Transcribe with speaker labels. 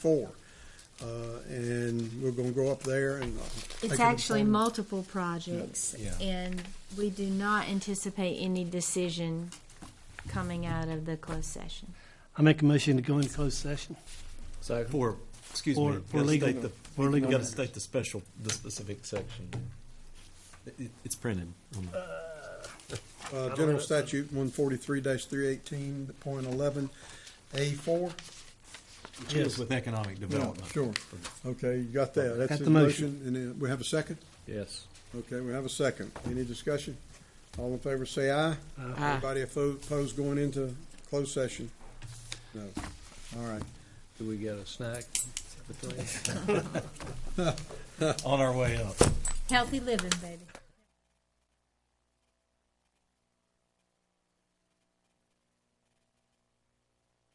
Speaker 1: four. Uh, and we're gonna go up there and. uh, make
Speaker 2: It's
Speaker 1: an
Speaker 2: actually
Speaker 1: informed-
Speaker 2: multiple projects,
Speaker 1: Yeah.
Speaker 2: and we do not anticipate any decision coming out of the closed session.
Speaker 3: I make a motion to go into closed session.
Speaker 4: For, excuse me.
Speaker 3: For-
Speaker 4: you
Speaker 3: for
Speaker 4: gotta
Speaker 3: legal-
Speaker 4: state the-
Speaker 3: for
Speaker 4: You
Speaker 3: legal
Speaker 4: gotta
Speaker 3: matters.
Speaker 4: state the special, the specific section. It- it- It's printed. on the-
Speaker 1: Uh, General Statute one forty-three three eighteen, point eleven, A four.
Speaker 4: it deals With economic development.
Speaker 1: Sure. Okay, you got that. That's
Speaker 3: Got
Speaker 1: the
Speaker 3: the motion.
Speaker 1: motion. And then we have a second?
Speaker 5: Yes.
Speaker 1: Okay, we have a second. Any discussion? All in favor, say aye. Anybody oppo- opposed going into closed session? No. All right.
Speaker 5: Do we get a snack between?
Speaker 4: On our way up.
Speaker 2: Healthy living, baby.